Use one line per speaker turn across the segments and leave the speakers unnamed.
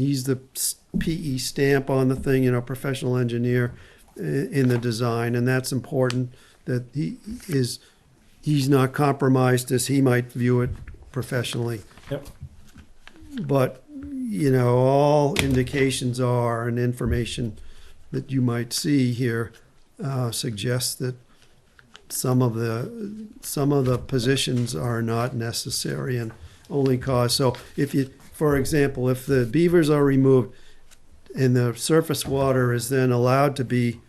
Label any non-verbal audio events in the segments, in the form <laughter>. he's the s- PE stamp on the thing, you know, professional engineer i- in the design, and that's important that he is, he's not compromised as he might view it professionally.
Yep.
But, you know, all indications are, and information that you might see here uh, suggests that some of the, some of the positions are not necessary and only cause, so if you, for example, if the beavers are removed and the surface water is then allowed to be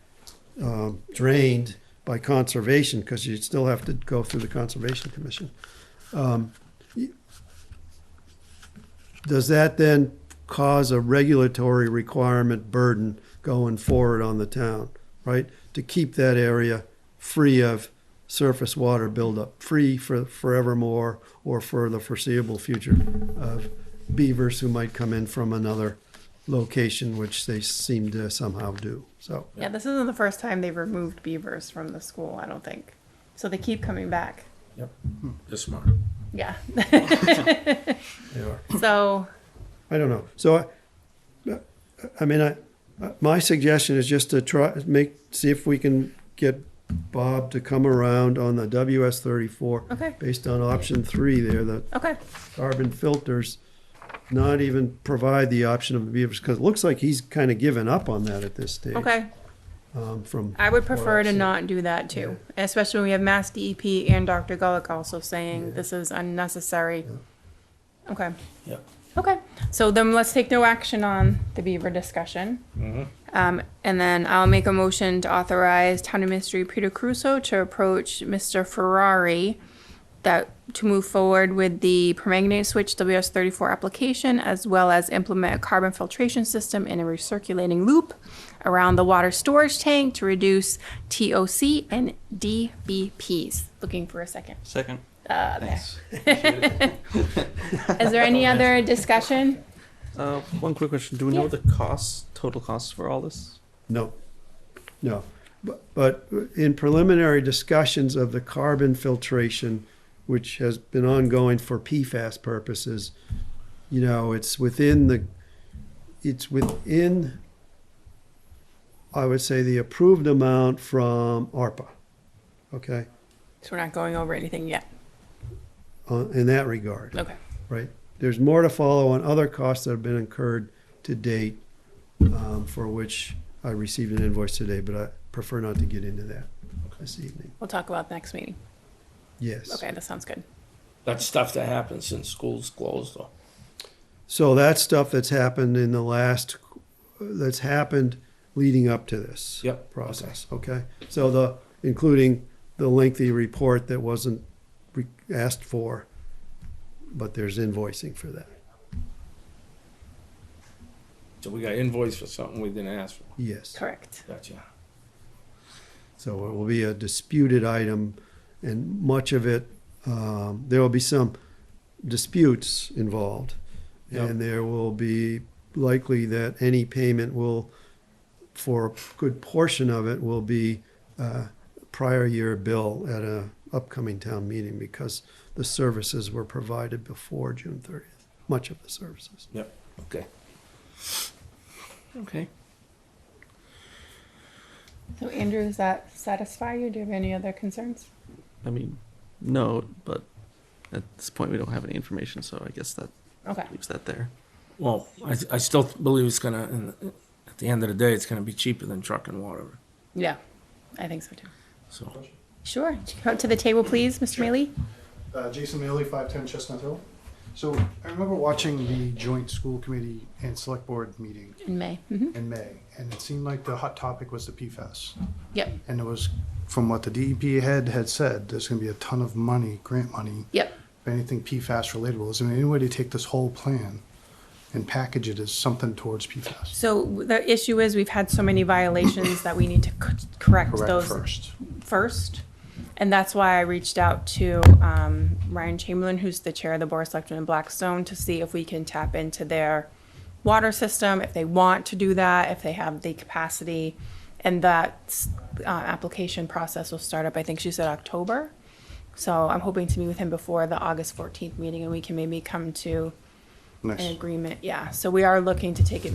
um, drained by conservation, because you still have to go through the Conservation Commission. um, y- Does that then cause a regulatory requirement burden going forward on the town, right? To keep that area free of surface water buildup, free for forevermore or for the foreseeable future of beavers who might come in from another location, which they seem to somehow do, so.
Yeah, this isn't the first time they've removed beavers from the school, I don't think. So they keep coming back.
Yep. They're smart.
Yeah.
They are.
<laughs> so,
I don't know. So, I, I mean, I, my suggestion is just to try, make, see if we can get Bob to come around on the WS thirty-four.
Okay.
Based on option three there, the
okay.
carbon filters, not even provide the option of beavers, because it looks like he's kind of given up on that at this stage.
Okay.
Um, from.
I would prefer
what I've
to
seen.
not do that too, especially when we have Mass DEP and Dr. Gulick also saying this is unnecessary. Okay.
Yep.
Okay. So then let's take no action on the beaver discussion. Um, and then I'll make a motion to authorize Town Administrator Peter Crusoe to approach Mr. Ferrari that to move forward with the permanganate switch WS34 application as well as implement a carbon filtration system in a recirculating loop around the water storage tank to reduce TOC and DBPs. Looking for a second.
Second.
Uh, there.
Thanks.
Is there any other discussion?
Uh, one quick question. Do we know
Yeah.
the costs, total costs for all this?
No, no. But, but in preliminary discussions of the carbon filtration, which has been ongoing for PFAS purposes, you know, it's within the, it's within, I would say, the approved amount from ARPA, okay,
So we're not going over anything yet.
uh, in that regard.
Okay.
right? There's more to follow on other costs that have been incurred to date, um, for which I received an invoice today, but I prefer not to get into that this evening.
We'll talk about next meeting.
Yes.
Okay, that sounds good.
That's stuff that happens since school's closed though.
So that's stuff that's happened in the last, that's happened leading up to this.
Yep, okay.
Process, okay? So the, including the lengthy report that wasn't re- asked for, but there's invoicing for that.
So we got invoice for something we didn't ask for.
Yes.
Correct.
Gotcha.
So it will be a disputed item, and much of it, um, there will be some disputes involved.
Yep.
And there will be likely that any payment will, for a good portion of it, will be uh, prior year bill at a upcoming town meeting because the services were provided before June thirtieth, much of the services.
Yep. Okay.
Okay.
So Andrew, does that satisfy you? Do you have any other concerns?
I mean, no, but at this point we don't have any information, so I guess that
Okay.
leaves that there.
Well, I, I still believe it's gonna, in- at the end of the day, it's gonna be cheaper than trucking water,
Yeah, I think so too.
so.
Sure. Could you Come up to the table, please, Mr. Mealy.
Uh, Jason Maley, 510 Chestnut Hill. So I remember watching the joint school committee and select board meeting
In May. hmm
in May, and it seemed like the hot topic was the PFAS.
Yep.
And it was, from what the DEP head had said, there's going to be a ton of money, grant money,
Yep.
for anything PFAS relatable. Is there any way to take this whole plan and package it as something towards PFAS?
So the issue is we've had so many violations that we need to c- correct
Correct
those
first.
first. And that's why I reached out to um, Ryan Chamberlain, who's the chair of the Board of Selectmen in Blackstone, to see if we can tap into their water system, if they want to do that, if they have the capacity. And that uh, application process will start up, I think she said October. So I'm hoping to meet with him before the August 14th meeting, and we can maybe come to
Nice.
an agreement, yeah. So we are looking to take advantage